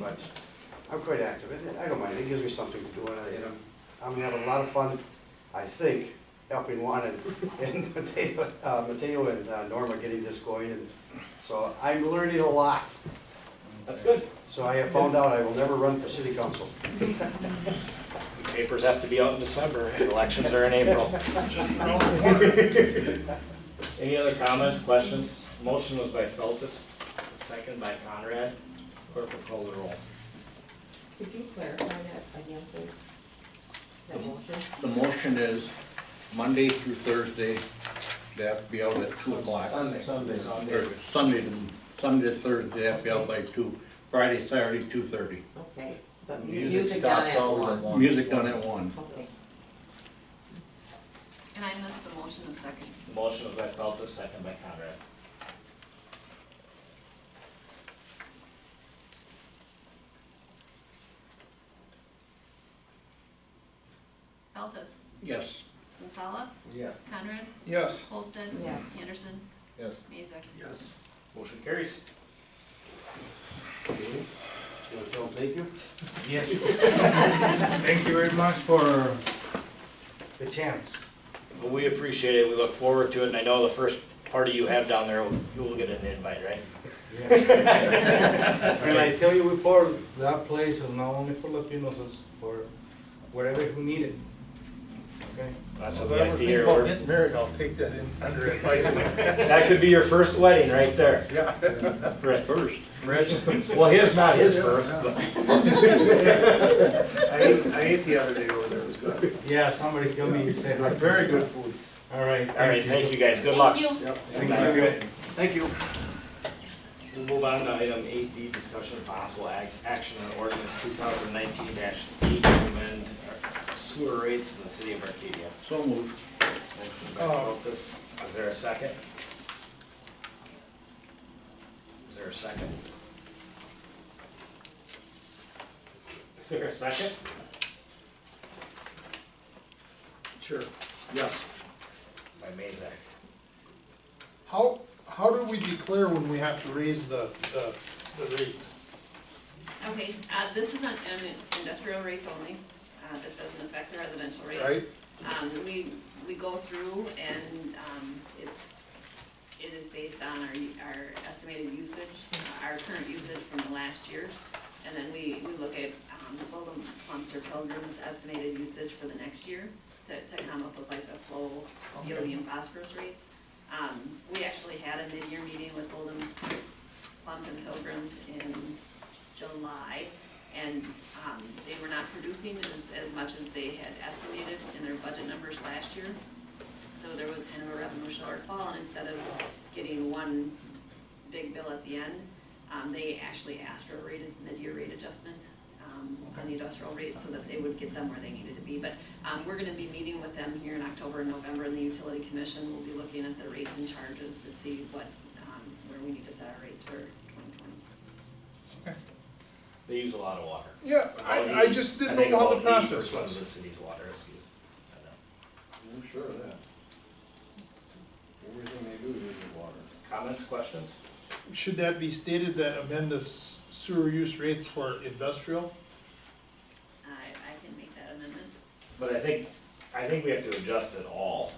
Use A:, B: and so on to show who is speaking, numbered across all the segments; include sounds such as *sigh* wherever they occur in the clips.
A: but I'm quite active, and I don't mind, it gives me something to do, and I, and I'm- I'm having a lot of fun, I think, helping Juan and, *laughs* and Mateo, uh, Mateo and uh, Norma getting this going, and so I'm learning a lot.
B: That's good.
A: So I have found out I will never run for city council.
B: Papers have to be out in December, elections are in April.
C: Just around the corner.
B: Any other comments, questions? Motion was by Feltus, second by Conrad. Clerk will call the roll.
D: Could you clarify that again, please? That motion?
E: The motion is Monday through Thursday, they have to be out at two o'clock.
A: Sunday.
E: Or Sunday, to Sunday to Thursday, they have to be out by two, Friday, Saturday, two thirty.
D: Okay, but mu- music done at one.
E: Music done at one.
D: Okay.
F: And I missed the motion and second.
B: Motion was by Feltus, second by Conrad.
F: Feltes,
E: Yes.
F: Sensala,
A: Yeah.
F: Conrad,
C: Yes.
F: Holston.
D: Yes.
F: Anderson,
E: Yes.
F: Mazak.
C: Yes.
B: Motion carries.
A: You wanna tell them thank you?
G: Yes. Thank you very much for the chance.
B: Well, we appreciate it, we look forward to it, and I know the first party you have down there, you will get an invite, right?
G: *laughs* And I tell you before, that place is not only for Latinos, it's for wherever who need it. Okay?
B: That's
C: If
B: what we
C: I ever
B: like to
C: think
B: hear.
C: about getting married, I'll take that in under advisement.
B: That could be your first wedding right there. Yeah.
E: First.
B: Well, his, not his first, but.
H: I ate, I ate the other day over there, it was good.
G: Yeah, somebody tell me, say hi.
H: Very good food.
G: All right.
B: All right, thank you guys, good luck.
F: Thank you.
H: Yep.
G: Thank you.
A: Thank you.
B: We'll move on to item eight D, discussion of possible ac- action on ordinance two thousand nineteen eight to amend our sewer rates in the city of Arcadia.
E: So moved.
B: Motion by
C: Oh.
B: Feltus, Uh, is there a second? Is there a second? Is there a second?
H: Sure, yes.
B: By Mazak.
C: How, how do we declare when we have to raise the, the, the rates?
F: Okay, uh, this is on on industrial rates only. Uh, This doesn't affect the residential rate.
C: Right?
F: Um, We, we go through and um, it's, it is based on our, our estimated usage, uh, our current usage from the last year. And then we, we look at um, the Pilgrim pumps or Pilgrim's estimated usage for the next year to, to come up with like the flow, helium phosphorus rates. Um, We actually had a mid-year meeting with Golden Plump and Pilgrims in July. And um, they were not producing as, as much as they had estimated in their budget numbers last year. So there was kind of a revenue shortfall, and instead of getting one big bill at the end, um, they actually asked for a rate, mid-year rate adjustment um, on the industrial rates so that they would get them where they needed to be. But um, we're gonna be meeting with them here in October and November, and the utility commission will be looking at the rates and charges to see what, um, where we need to set our rates for twenty twenty.
B: They use a lot of water.
C: Yeah, I, I just didn't know how the process
B: About 80% of
C: was.
B: the city's water is used. I know.
H: I'm sure of that. Everything they do is with water.
B: Comments, questions?
C: Should that be stated that amend the s- sewer use rates for industrial?
F: I, I can make that amendment.
B: But I think, I think we have to adjust it all.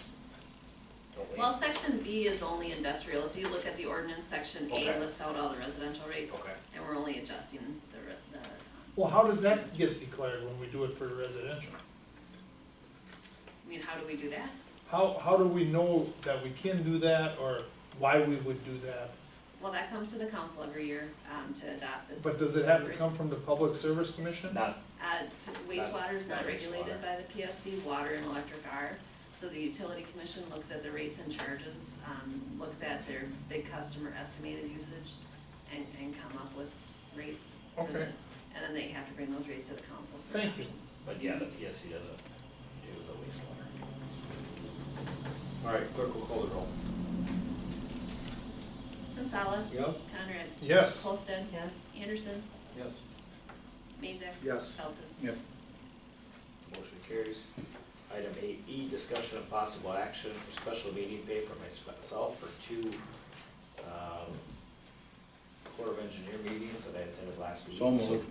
B: Don't we?
F: Well, section B is only industrial, if you look at the ordinance, section
B: Okay.
F: A lists out all the residential rates,
B: Okay.
F: and we're only adjusting the, re- the, um,
C: Well, how does that get declared when we do it for residential?
F: I mean, how do we do that?
C: How, how do we know that we can do that or why we would do that?
F: Well, that comes to the council every year, um, to adopt this.
C: But does it have to come from the Public Service Commission?
B: Not
F: Uh, it's- wastewater is
B: Not
F: not
B: wastewater.
F: regulated by the PSC, water and electric are. So the utility commission looks at the rates and charges, um, looks at their big customer estimated usage and, and come up with rates. And
C: Okay.
F: then- And then they have to bring those rates to the council. for
C: Thank you.
F: adoption.
B: But yeah, the PSC doesn't do the wastewater. All right, clerk will call the roll.
F: Sensala.
H: Yep.
F: Conrad.
C: Yes.
F: Holston.
D: Yes.
F: Anderson.
H: Yes.
F: Mazak.
H: Yes.
F: Feltes.
E: Yep.
B: Motion carries. Item eight E, discussion of possible action for special meeting pay for myself for two, um, Corps of Engineer meetings that I attended last week.
E: So moved.